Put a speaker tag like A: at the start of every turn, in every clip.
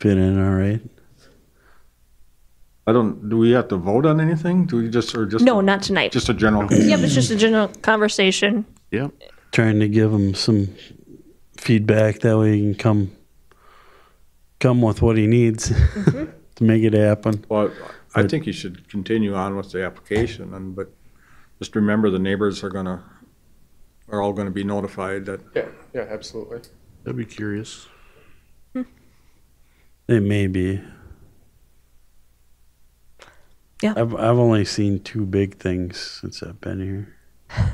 A: fit in all right.
B: I don't, do we have to vote on anything? Do we just, or just?
C: No, not tonight.
B: Just a general?
C: Yep, it's just a general conversation.
D: Yep.
A: Trying to give him some feedback that way he can come come with what he needs to make it happen.
B: Well, I think you should continue on with the application and, but just remember the neighbors are gonna, are all gonna be notified that
E: Yeah, yeah, absolutely.
D: That'd be curious.
A: It may be.
C: Yeah.
A: I've I've only seen two big things since I've been here.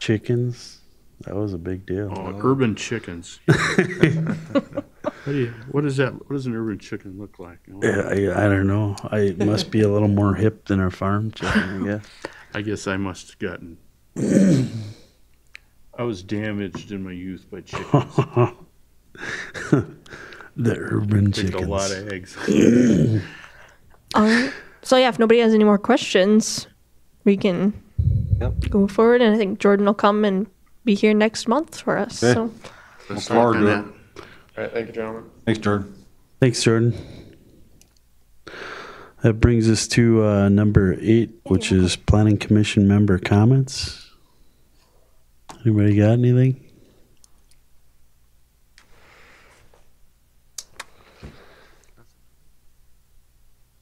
A: Chickens. That was a big deal.
D: Oh, urban chickens. what, do you, what is that? What does an urban chicken look like? Oh,
A: Yeah, I, I don't know. I it must be a little more hip than our farm chicken, I guess.
D: I guess I must have gotten. I was damaged in my youth by chickens.
A: the urban
D: Chickens.
A: chickens.
D: a lot of eggs.
C: Um, so yeah, if nobody has any more questions, we can go forward. And I think Jordan will come and be here next month for us.
B: Okay.
C: So
D: Let's
B: forward
D: work on
B: to
D: that.
B: it.
E: All right, thank you, gentlemen.
B: Thanks, Jordan.
A: Thanks, Jordan. That brings us to uh, number eight, which is Planning Commission member comments. Anybody got anything?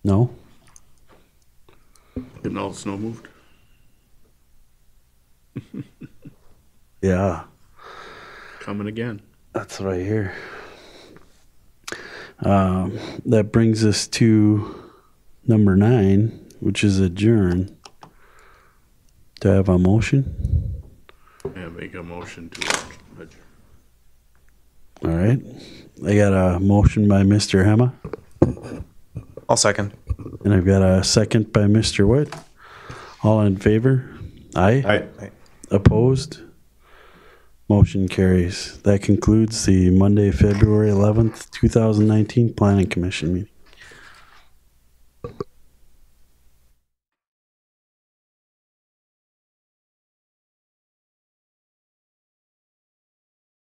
A: No?
D: Getting all the snow moved.
A: Yeah.
D: Coming again.
A: That's what I hear. Um, that brings us to number nine, which is adjourn. Do I have a motion?
D: Yeah, make a motion to adjourn.
A: All right. I got a motion by Mr. Hema,
E: I'll second.
A: and I've got a second by Mr. Witt. All in favor? Aye. Opposed? Motion carries. That concludes the Monday, February 11th, 2019 Planning Commission meeting.